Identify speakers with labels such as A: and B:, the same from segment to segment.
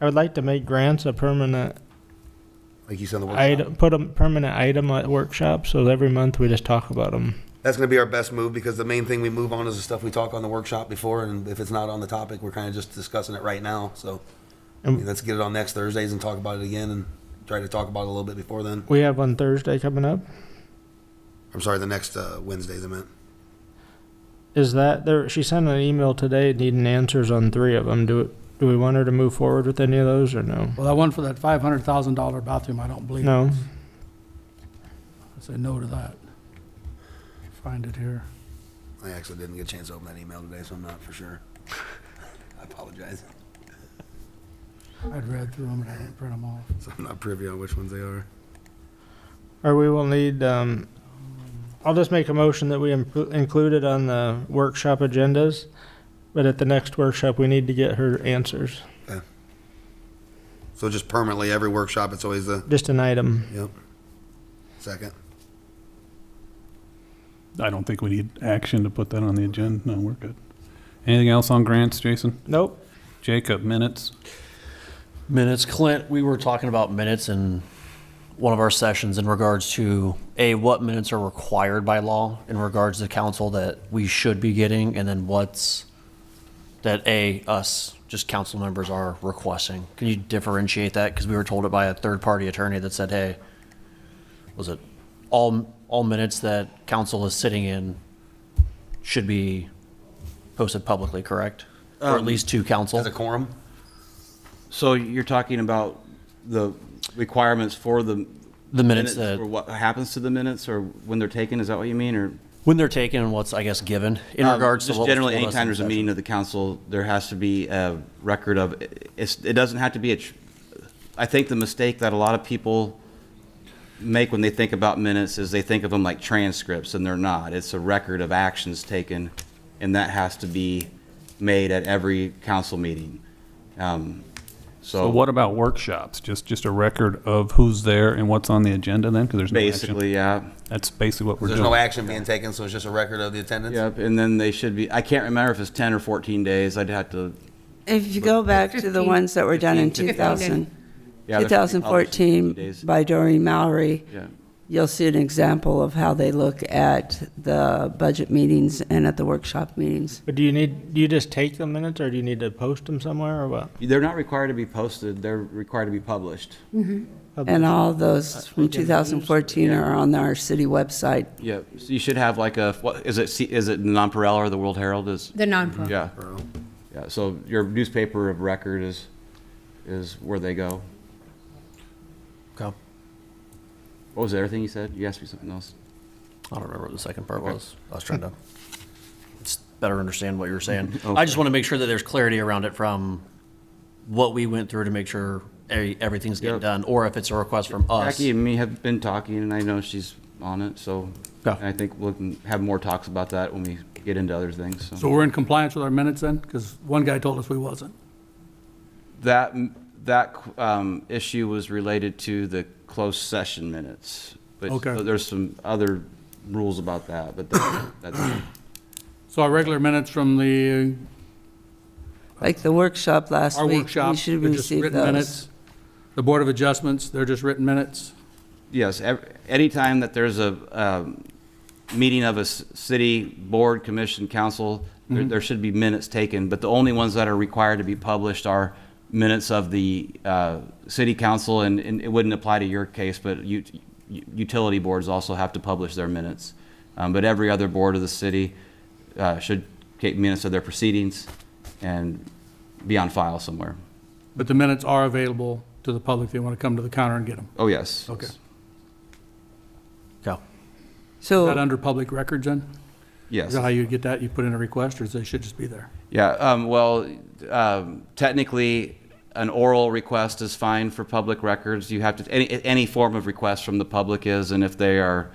A: I would like to make grants a permanent
B: like you said, on the workshop.
A: item, put a permanent item at workshops, so every month we just talk about them.
B: That's going to be our best move because the main thing we move on is the stuff we talk on the workshop before, and if it's not on the topic, we're kind of just discussing it right now. So I mean,
A: And-
B: let's get it on next Thursdays and talk about it again, and try to talk about it a little bit before then.
A: We have one Thursday coming up.
B: I'm sorry, the next uh, Wednesdays I meant.
A: Is that there? She sent an email today needing answers on three of them. Do do we want her to move forward with any of those or no?
C: Well, that one for that five hundred thousand dollar bathroom, I don't believe.
A: No.
C: I say no to that. Find it here.
B: I actually didn't get a chance to open that email today, so I'm not for sure. I apologize.
C: I'd read through them, but I didn't print them off.
B: So I'm not privy on which ones they are.
A: Or we will need. Um, I'll just make a motion that we impl- include it on the workshop agendas, but at the next workshop we need to get her answers.
B: So just permanently, every workshop, it's always the
A: Just an item.
B: yep. Second.
D: I don't think we need action to put that on the agenda. No, we're good. Anything else on grants, Jason?
A: Nope.
D: Jacob, minutes?
E: Minutes, Clint, we were talking about minutes in one of our sessions in regards to, A, what minutes are required by law in regards to council that we should be getting, and then what's that, A, us, just council members are requesting. Can you differentiate that? Because we were told it by a third-party attorney that said, hey, was it all, all minutes that council is sitting in should be posted publicly, correct? Or at least to council?
B: Um, As a quorum.
F: So you're talking about the requirements for the.
E: The minutes uh, that-
F: Or what happens to the minutes or when they're taken, is that what you mean, or? Um,
E: When they're taken and what's, I guess, given in regards to
F: Just
E: what was
F: generally,
E: told us in
F: anytime there's a
E: session.
F: meeting of the council, there has to be a record of, it's, it doesn't have to be a, tr- I think the mistake that a lot of people make when they think about minutes is they think of them like transcripts, and they're not. It's a record of actions taken, and that has to be made at every council meeting. Um,
B: Oh.
D: So what about workshops? Just, just a record of who's there and what's on the agenda then? Because there's no action.
F: Basically, yeah.
D: That's basically what we're
B: There's no
D: doing.
B: action being taken, so it's just a record of the attendance.
F: Yep, and then they should be, I can't remember if it's 10 or 14 days, I'd have to.
G: If you go back to the
H: Fifteen.
G: ones that were done in
F: 15,
G: 2000,
F: yeah, there should be published in 50
G: 2014
F: days.
G: by Doreen Mallory,
F: Yeah.
G: you'll see an example of how they look at the budget meetings and at the workshop meetings.
A: But do you need? Do you just take the minutes, or do you need to post them somewhere, or what?
F: They're not required to be posted, they're required to be published.
G: And all those from 2014
F: yeah.
G: are on our city website.
F: Yep, so you should have like a, what, is it, C- is it Nonpareil or the World Herald is?
H: The non-profit.
F: Yeah. Yeah, so your newspaper of record is, is where they go.
E: Okay.
F: What was the other thing you said? You asked me something else.
E: I don't remember what the second part was. I was trying to just better understand what you were saying.
F: Okay.
E: I just want to make sure that there's clarity around it from what we went through to make sure e- everything's getting
F: Yep.
E: done, or if it's a request from us.
F: Jackie and me have been talking, and I know she's on it, so
E: Yeah.
F: I think we'll have more talks about that when we get into other things, so.
C: So we're in compliance with our minutes then? Because one guy told us we wasn't.
F: That, that um, issue was related to the closed session minutes. but
C: Okay.
F: so There's some other rules about that, but that- that's,
C: So our regular minutes from the,
G: Like the workshop
C: uh,
G: last
C: our
G: week,
C: workshop,
G: you should
C: they're just
G: receive
C: written
G: those.
C: minutes. The Board of Adjustments, they're just written minutes.
F: yes, ev- anytime that there's a um, meeting of a s- city board, commission, council, there there should be minutes taken, but the only ones that are required to be published are minutes of the uh, city council, and and it wouldn't apply to your case, but u- u- utility boards also have to publish their minutes. Um, But every other board of the city uh, should keep minutes of their proceedings and be on file somewhere.
C: But the minutes are available to the public. They want to come to the counter and get them.
F: Oh, yes.
C: Okay.
E: Go.
C: Is that
G: So
C: under public records then?
F: Yes.
C: Is that how you get that? You put in a request, or is they should just be there?
F: Yeah, um, well, um, technically, an oral request is fine for public records. You have to, any, any form of request from the public is, and if they are,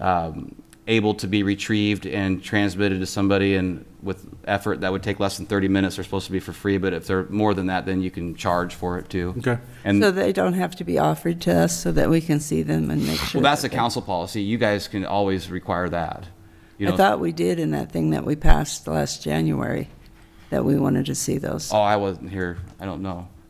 F: um, able to be retrieved and transmitted to somebody and with effort, that would take less than thirty minutes, they're supposed to be for free, but if they're more than that, then you can charge for it too.
C: Okay.
F: And,
G: so
F: well,
G: they don't have to be offered to us so that we can see them and make sure.
F: that's a
G: that they-
F: council policy. You guys can always require that. You
G: I
F: know,
G: thought we did in that thing that we passed last January, that we wanted to see those.
F: oh, I wasn't here. I don't know.